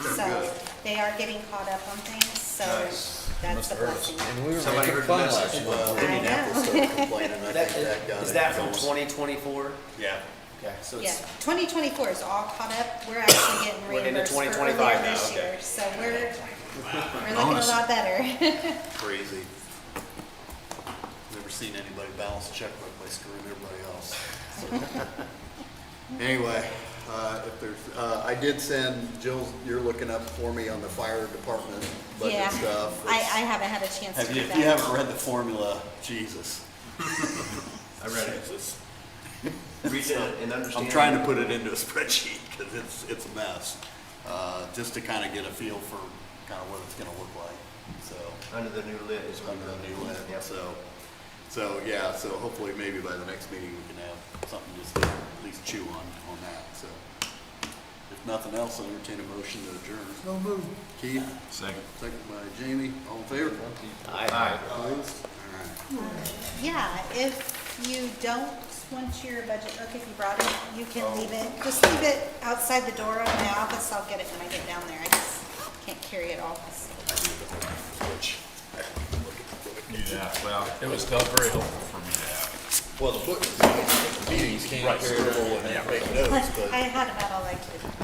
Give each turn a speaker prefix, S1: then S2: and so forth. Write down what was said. S1: so
S2: good.
S1: they are getting caught up on things, so
S2: Nice.
S1: that's the blessing.
S3: And we were
S2: Somebody
S3: making
S2: heard
S3: fun
S2: the message.
S3: last month.
S4: Well,
S1: I know.
S4: Indianapolis started complaining, I
S5: That,
S4: think that got
S5: is
S4: it.
S5: that from
S4: Almost-
S5: 2024?
S2: Yeah.
S5: Okay, so
S1: Yeah,
S5: it's,
S1: twenty twenty-four is all caught up, we're actually getting
S5: We're into
S1: reimbursed for
S5: 2025
S1: earlier
S5: now,
S1: this
S2: okay.
S1: year, so we're, we're looking a
S2: Bonus.
S1: lot better.
S2: Crazy. Never seen anybody balance a checkbook by screwing everybody else.
S4: Anyway, uh, if there's, uh, I did send, Jill, you're looking up for me on the fire department
S1: Yeah,
S4: budget stuff.
S1: I, I haven't had a chance to
S2: Have you,
S1: do
S2: if you
S1: that.
S2: haven't read the formula, Jesus.
S3: I read it.
S5: read it and understand.
S2: I'm trying to put it into a spreadsheet because it's, it's a mess. Uh, just to kind of get a feel for kind of what it's going to look like, so.
S5: Under the new lid is what
S2: under the
S5: we're
S2: new lid,
S5: Yep.
S2: so, so, yeah, so hopefully maybe by the next meeting we can have something just to at least chew on, on that, so. If nothing else, I'll entertain a motion to adjourn. No move. Keith? Second. Second by Jamie, all in favor?
S5: Aye.
S2: Opposed? All right.
S1: Yeah, if you don't want your budget book, if you brought it, you can
S2: Oh.
S1: leave it, just leave it outside the door of my office, I'll get it when I get down there, I just can't carry it all.
S6: Yeah, well, it was not very helpful for me to have.
S4: Well, the book, meetings can't carry it over and make
S1: I
S4: notes, but
S1: had about all I could.